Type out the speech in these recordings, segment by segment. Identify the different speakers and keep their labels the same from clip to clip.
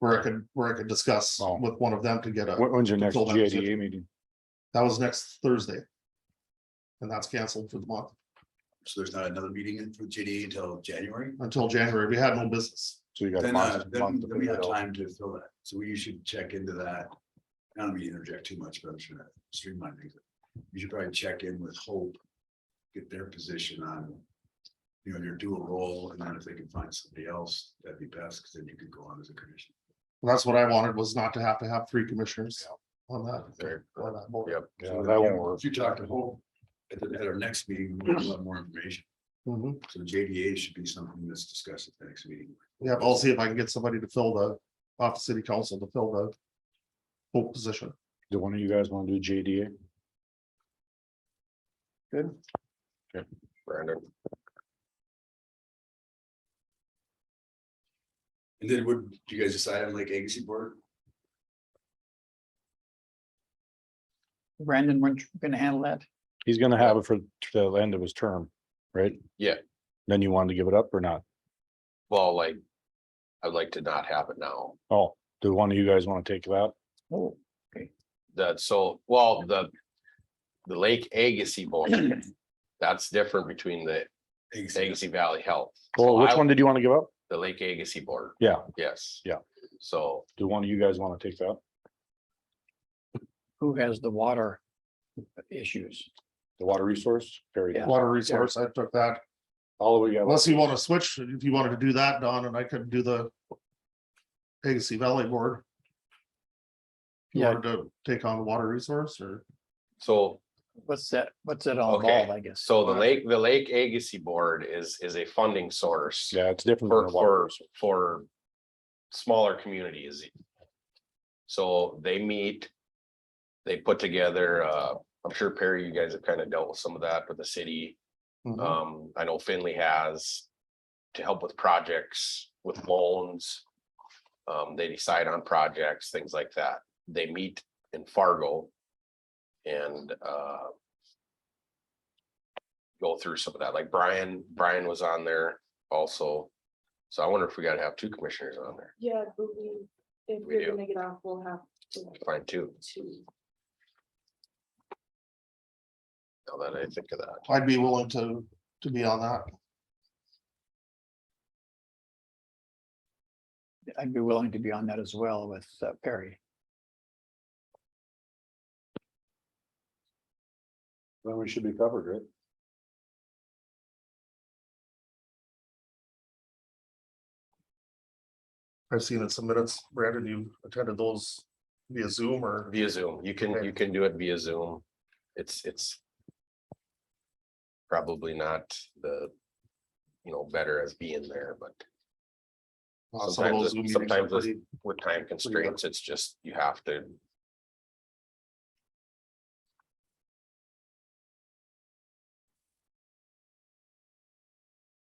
Speaker 1: where I could, where I could discuss
Speaker 2: Oh.
Speaker 1: with one of them to get a,
Speaker 2: When- When's your next
Speaker 1: Control deficit.
Speaker 2: GIDA meeting?
Speaker 1: that was next Thursday. And that's canceled for the month
Speaker 3: So there's not another meeting in for JDA until January?
Speaker 1: until January. We had no business.
Speaker 2: So you got. a
Speaker 3: Then, uh,
Speaker 2: month-
Speaker 3: then
Speaker 2: month to
Speaker 3: then we
Speaker 2: figure
Speaker 3: have
Speaker 2: it out.
Speaker 3: time to fill that. So we should check into that. I don't mean to interject too much, but I'm sure that streamline things. You should probably check in with Hope. Get their position on. You know, your dual role and then if they can find somebody else, that'd be best, because then you could go on as a commission.
Speaker 1: That's what I wanted was not to have to have three commissioners on that.
Speaker 3: Fair.
Speaker 1: on that board.
Speaker 2: Yep, yeah,
Speaker 3: So
Speaker 2: that
Speaker 3: if
Speaker 2: won't
Speaker 3: you-
Speaker 2: work.
Speaker 3: If you talk to Hope. At the, at our next meeting, we'll have more information.
Speaker 1: Mhm.
Speaker 3: So JDA should be something that's discussed at the next meeting.
Speaker 1: Yeah, I'll see if I can get somebody to fill the, off the city council to fill the full position.
Speaker 2: Do one of you guys want to do JDA?
Speaker 3: And then would you guys decide on like agency board?
Speaker 4: Brandon, weren't you gonna handle that?
Speaker 2: He's gonna have it for the end of his term, right?
Speaker 5: Yeah.
Speaker 2: Then you wanted to give it up or not?
Speaker 5: Well, like, I'd like to not have it now.
Speaker 2: Oh, do one of you guys want to take that?
Speaker 4: Oh,
Speaker 5: That so, well, the, the Lake Agassiz Board, that's different between the Agassiz Valley Health.
Speaker 2: Well, which
Speaker 5: I-
Speaker 2: one did you want to give up?
Speaker 5: The Lake Agassiz Board,
Speaker 2: Yeah,
Speaker 5: yes.
Speaker 2: Yeah.
Speaker 5: So,
Speaker 2: do one of you guys want to take that?
Speaker 4: who has the water issues?
Speaker 2: The water resource, Carrie.
Speaker 4: Yeah.
Speaker 1: Water resource, I took that.
Speaker 2: All we got.
Speaker 1: Unless you want to switch, if you wanted to do that, Don, and I could do the Agassiz Valley Board. If You
Speaker 4: Yeah.
Speaker 1: wanted to take on the water resource or
Speaker 5: so,
Speaker 4: What's that, what's that all
Speaker 5: Okay,
Speaker 4: involved, I guess?
Speaker 5: so the Lake, the Lake Agassiz Board is, is a funding source
Speaker 2: Yeah, it's different. than
Speaker 5: for,
Speaker 2: the water
Speaker 5: for,
Speaker 2: resource.
Speaker 5: for smaller communities. So they meet, they put together, uh, I'm sure Perry, you guys have kind of dealt with some of that with the city.
Speaker 1: Mhm.
Speaker 5: Um, I know Finley has to help with projects, with loans. Um, they decide on projects, things like that. They meet in Fargo. And, uh. Go through some of that, like Brian, Brian was on there also. So I wonder if we gotta have two commissioners on there,
Speaker 6: Yeah, but we, if
Speaker 5: We
Speaker 6: we
Speaker 5: do.
Speaker 6: are gonna get off, we'll have to,
Speaker 5: find two,
Speaker 6: to,
Speaker 5: now that I think of that.
Speaker 1: I'd be willing to, to be on that.
Speaker 4: I'd be willing to be on that as well with uh, Perry.
Speaker 2: Then we should be covered, right?
Speaker 1: I've seen it some minutes. Brandon, you attended those via Zoom or?
Speaker 5: Via Zoom, you can,
Speaker 1: Okay.
Speaker 5: you can do it via Zoom. It's, it's. Probably not the, you know, better as being there, but
Speaker 1: Uh, some of those
Speaker 5: sometimes it-
Speaker 1: Zoom meetings are
Speaker 5: sometimes it's-
Speaker 1: pretty-
Speaker 5: with time constraints, it's just you have to.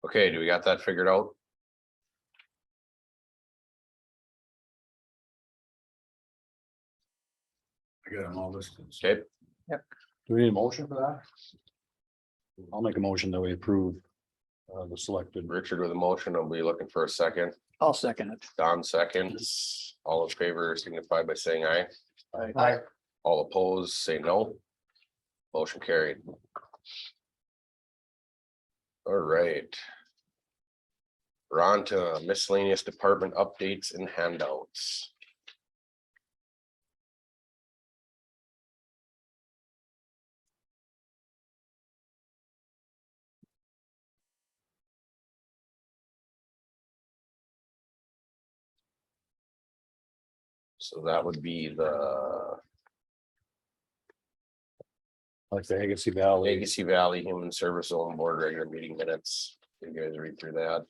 Speaker 5: Okay, do we got that figured out?
Speaker 3: I got them all listed.
Speaker 5: Okay,
Speaker 2: Do we need a motion for that? I'll make a motion that we approve uh, the selected.
Speaker 5: Richard with a motion, I'll be looking for a second.
Speaker 4: I'll second it.
Speaker 5: Don seconds, all in favor signify by saying aye.
Speaker 1: Aye.
Speaker 5: All opposed, say no. Motion carried. All right. We're on to miscellaneous department updates and handouts. So that would be the
Speaker 2: Like the Agassiz Valley.
Speaker 5: Legacy Valley Human Service Zone Board regular meeting minutes. You guys read through that.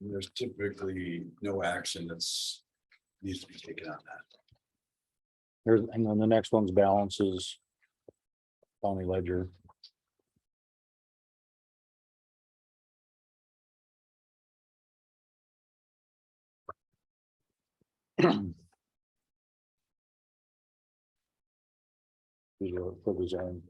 Speaker 3: There's typically no action that's needs to be taken on that.
Speaker 2: There's, and then the next one's balances. County ledger. These are for design.